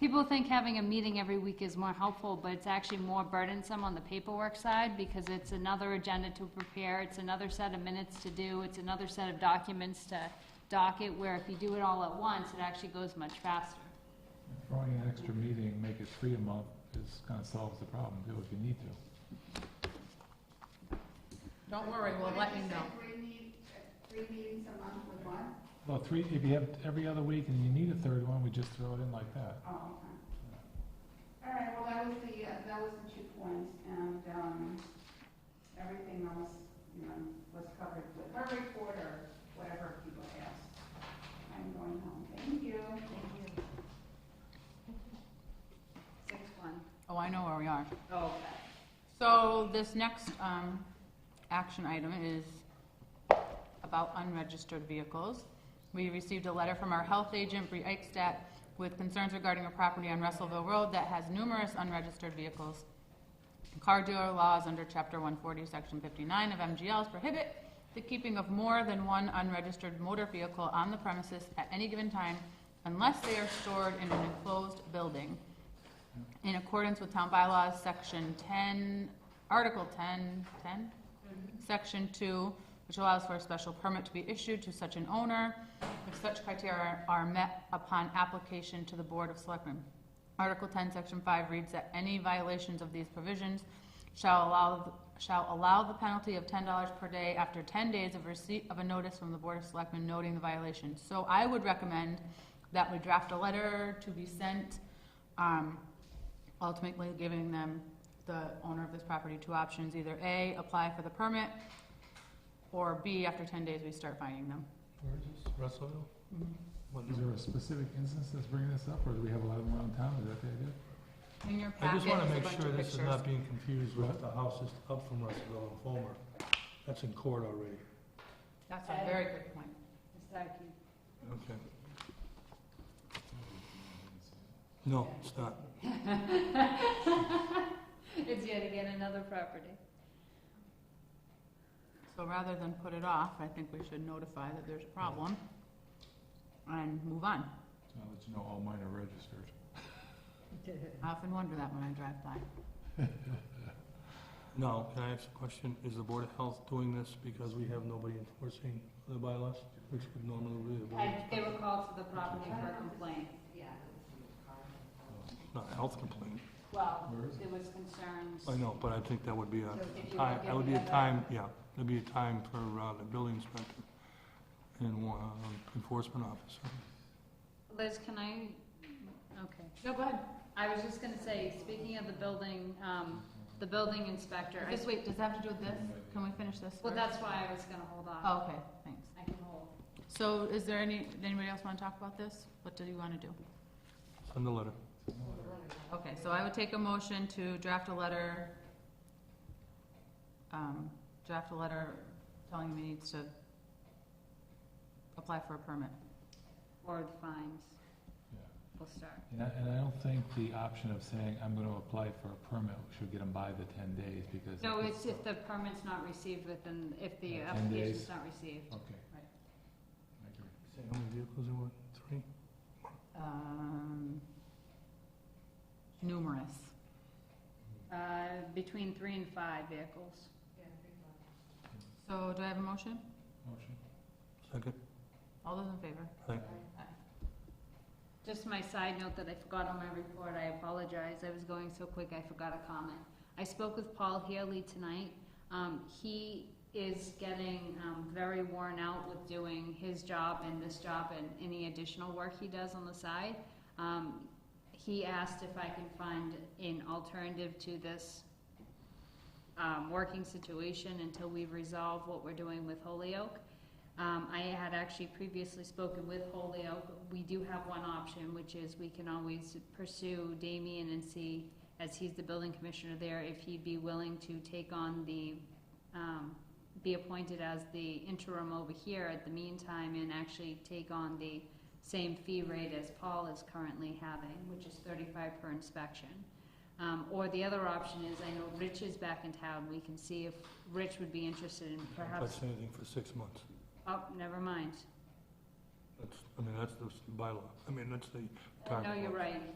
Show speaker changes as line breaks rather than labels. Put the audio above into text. People think having a meeting every week is more helpful, but it's actually more burdensome on the paperwork side because it's another agenda to prepare, it's another set of minutes to do, it's another set of documents to docket, where if you do it all at once, it actually goes much faster.
Throwing an extra meeting, make it three a month, is kind of solves the problem too, if you need to.
Don't worry, we'll let you know.
Three meetings, three meetings a month with one?
Well, three, if you have every other week and you need a third one, we just throw it in like that.
Oh, okay. All right, well, that was the, uh, that was the two points, and, um, everything else, you know, was covered with her report or whatever people asked. I'm going home, thank you. Six one.
Oh, I know where we are.
Okay.
So this next um, action item is about unregistered vehicles. We received a letter from our health agent, Bree Eichstadt, with concerns regarding a property on Russellville Road that has numerous unregistered vehicles. Car dealer laws under Chapter 140, Section 59 of MGLs prohibit the keeping of more than one unregistered motor vehicle on the premises at any given time unless they are stored in an enclosed building in accordance with town bylaws, section ten, article 10, 10, Section two, which allows for a special permit to be issued to such an owner if such criteria are met upon application to the Board of Selectmen. Article ten, section five reads that any violations of these provisions shall allow, shall allow the penalty of ten dollars per day after ten days of receipt of a notice from the Board of Selectmen noting the violation. So I would recommend that we draft a letter to be sent, um, ultimately giving them, the owner of this property, two options, either A, apply for the permit, or B, after ten days, we start finding them.
Where is this? Russellville?
What
Is
number?
there a specific instance that's bringing this up, or do we have a lot of them around town, is that the idea?
In your
I
packet
just
is a
want to make
bunch
sure
of
this is
pictures.
not being confused with the houses up from Russellville and Fulmer. That's in court already.
That's a very good point.
Okay. No, it's not.
It's yet again another property.
So rather than put it off, I think we should notify that there's a problem and move on.
So I'll let you know all mine are registered.
I often wonder that when I drive by.
No, can I ask a question? Is the Board of Health doing this because we have nobody enforcing the bylaws, which would normally be the Board?
they were called to the property for a complaint.
Yeah.
Not a health complaint.
Well,
Where is
there was concerns.
I know, but I think that would be a
So if you
time,
wanna
that would be
give
a
the-
time, yeah, that'd be a time for uh, the building inspector and one um, enforcement officer.
Liz, can I, okay.
No, go ahead.
I was just gonna say, speaking of the building, um, the building inspector, I,
Just wait, does that have to do with this? Can we finish this
well,
first?
that's why I was gonna hold off.
Oh, okay, thanks.
I can hold.
So is there any, anybody else want to talk about this? What do you want to do?
Send the letter.
Okay, so I would take a motion to draft a letter, um, draft a letter telling him he needs to apply for a permit.
Or the fines,
Yeah.
we'll start.
And I, and I don't think the option of saying, I'm gonna apply for a permit, should get them by the ten days, because.
No,
if
it's if the permit's not received within, if the
Yeah, 10
application's
days.
not received.
Okay.
Right.
I agree.
Say how many vehicles there were, three?
Um, numerous.
Uh, between three and five vehicles.
So do I have a motion?
Motion?
Second?
All those in favor?
Aye.
Just my side note that I forgot on my report, I apologize, I was going so quick, I forgot a comment. I spoke with Paul Healy tonight, um, he is getting, um, very worn out with doing his job and this job and any additional work he does on the side. Um, he asked if I can find an alternative to this, um, working situation until we resolve what we're doing with Holyoke. Um, I had actually previously spoken with Holyoke. We do have one option, which is we can always pursue Damien and see, as he's the building commissioner there, if he'd be willing to take on the, um, be appointed as the interim over here at the meantime and actually take on the same fee rate as Paul is currently having, which is thirty-five per inspection. Um, or the other option is, I know Rich is back in town, we can see if Rich would be interested in perhaps
That's anything for six months.
Oh, never mind.
That's, I mean, that's the bylaw. I mean, that's the time.
No, you're right.